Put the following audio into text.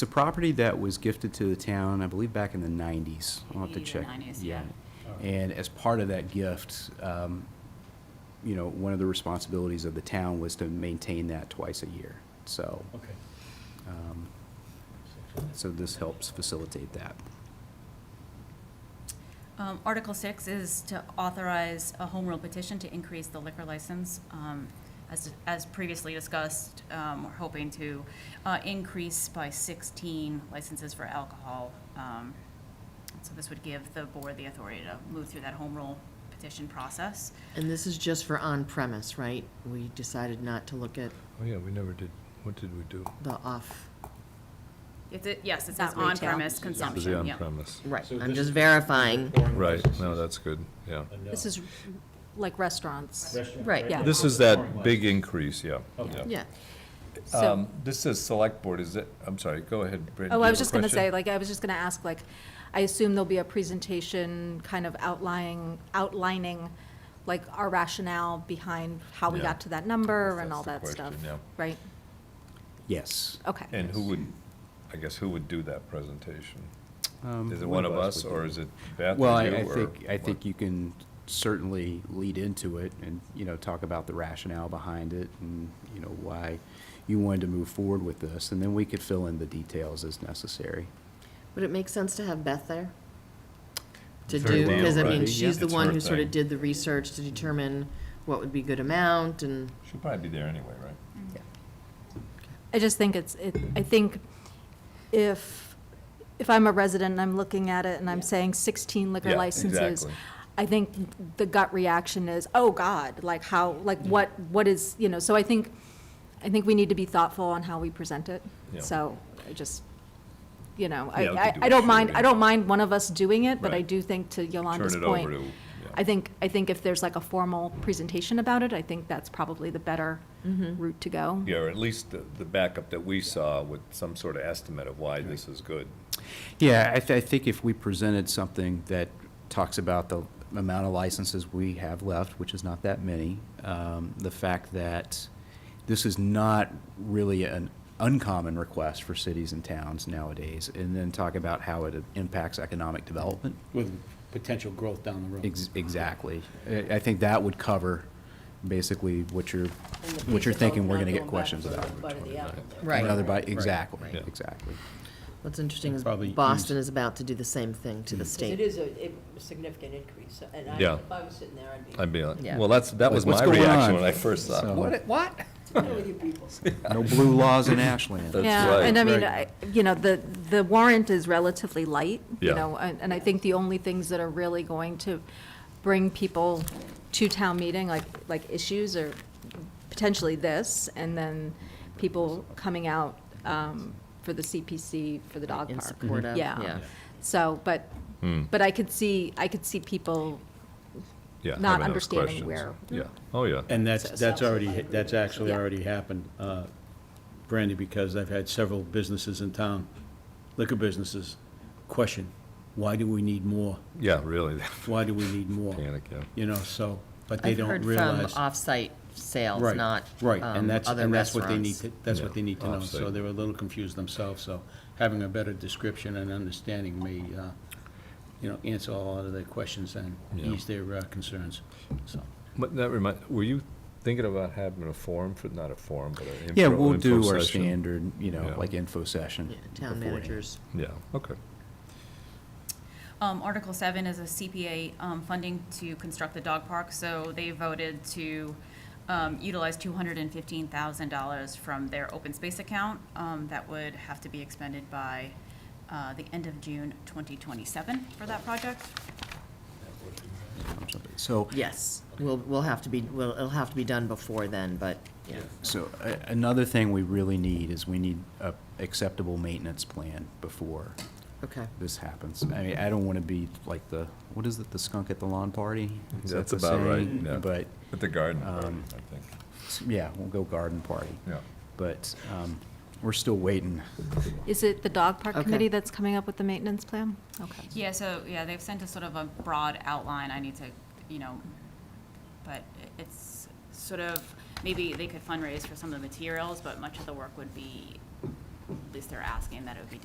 It's a property that was gifted to the town, I believe, back in the nineties. I'll have to 80s or check. 90s, yeah. And as part of that gift, um, you know, one of the responsibilities of the town was to maintain that twice a year. So, Okay. um, so this helps facilitate that. Um, Article six is to authorize a home rule petition to increase the liquor license. Um, As, as previously discussed, um, we're hoping to uh, increase by sixteen licenses for alcohol. Um, So this would give the board the authority to move through that home rule petition process. And this is just for on-premise, right? We decided not to look at Oh, yeah, we never did, what did we do? the off, It's, a- yes, it's Not retail. on-premise This is It was the consumption, yeah. on-premise. right, So I'm this just is- verifying. Right, no, that's good, yeah. This is like restaurants. uh, Restaurant, Right, yeah. This is that big increase, yeah, Okay. yeah. Yeah, So- Um, This says select board, is it, I'm sorry, go ahead, Brittany. Oh, you I have was a just gonna question? say, like, I was just gonna ask, like, I assume there'll be a presentation kind of outlining, outlining, like, our rationale behind how we Yeah. got to that number That's and all the that question, stuff, yeah. right? Yes. Okay. And who would, I guess, who would do that presentation? Um, Is it one of us, would or do. is it Beth Well, or I, you? I or think, I what? think you can certainly lead into it and, you know, talk about the rationale behind it and, you know, why you wanted to move forward with this, and then we could fill in the details as necessary. would it make sense to have Beth there? To Very do, well, because I right. mean, she's the It's one her who sort thing. of did the research to determine what would be good amount and, She'll probably be there anyway, right? I just think it's, it, I think if, if I'm a resident and I'm looking at it and I'm saying sixteen liquor Yeah, licenses, exactly. I think the gut reaction is, oh, God, like how, like what, what is, you know, so I think, I think we need to be thoughtful on how we present it. Yeah. So I just, you know, I, Yeah, we could I- do I it don't mind, shorter. I don't mind one of us doing it, but I Right. do think to Yolanda's Turn it over point, to, I yeah, think, I think if there's like a formal presentation about it, I think that's probably the better Mm-hmm. route to go. Yeah, or at least the, the backup that we saw with some sort of estimate of why this is good. Yeah, I, th- I think if we presented something that talks about the amount of licenses we have left, which is not that many, um, the fact that this is not really an uncommon request for cities and towns nowadays, and then talk about how it impacts economic development. With potential growth down the road. Ex- Exactly. I I think that would cover basically what you're, what you're thinking we're going to get questions about. Right. Another bite- exactly, Yeah. exactly. what's interesting is Probably Mm. Boston easy. is about to do the same thing to the It state. is a a significant increase, so- and I, Yeah. if I was sitting there, I'd be, I'd be like, Yeah. well, that's, that Like, was what's my going reaction on? when I first saw So- it. What, what? what are you people? No blue laws in Ashland. That's Yeah, right. and I mean, I, Right. you know, the, the warrant is relatively light, you Yeah. know, and, and I think the only things that are really going to bring people to town meeting, like, like issues are potentially this, and then people coming out, um, for the CPC, for the dog park. In support of, yeah. So, but, Hmm. but I could see, I could see people, Yeah, not having those understanding questions. where- Mm-hmm. Yeah, oh, yeah. And that's, So- that's already, that's actually Yeah. already happened, uh, Brandy, because I've had several businesses in town, liquor businesses, question, why do we need more? Yeah, really, Why do we need more? panic, yeah. You know, so, but they I've don't heard from realize. off-site sales, Right, not Right, um, and that's, other and that's what they need restaurants. to, that's what Yeah, they need to know. So offsite. they were a little confused themselves, so having a better description and understanding may, uh, you know, answer all of their questions and Yeah. ease their uh, concerns, so. But that remind, were you thinking about having a forum for, not a forum, but an info? Yeah, we'll info do our session? standard, you know, Yeah. like info session. Yeah, Town beforehand. managers. Yeah, okay. Um, Article seven is a CPA, um, funding to construct the dog park, so they voted to, um, utilize two hundred and fifteen thousand dollars from their open space account. Um, that would have to be expended by, uh, the end of June twenty twenty-seven for that project. So, Yes, we'll, we'll have to be, well, it'll have to be done before then, but, yeah. so a- another thing we really need is we need a acceptable maintenance plan before Okay. this happens. I mean, I don't want to be like the, what is it, the skunk at the lawn party? Is that That's the about right, saying? yeah. But, At the garden, party, Um, I think, yeah, we'll go garden party. yeah. But um, we're still waiting. is it the dog park Okay. committee that's coming up with the maintenance plan? Okay. Yeah, so, yeah, they've sent us sort of a broad outline, I need to, you know, but it's sort of, maybe they could fundraise for some of the materials, but much of the work would be at least they're asking that it would be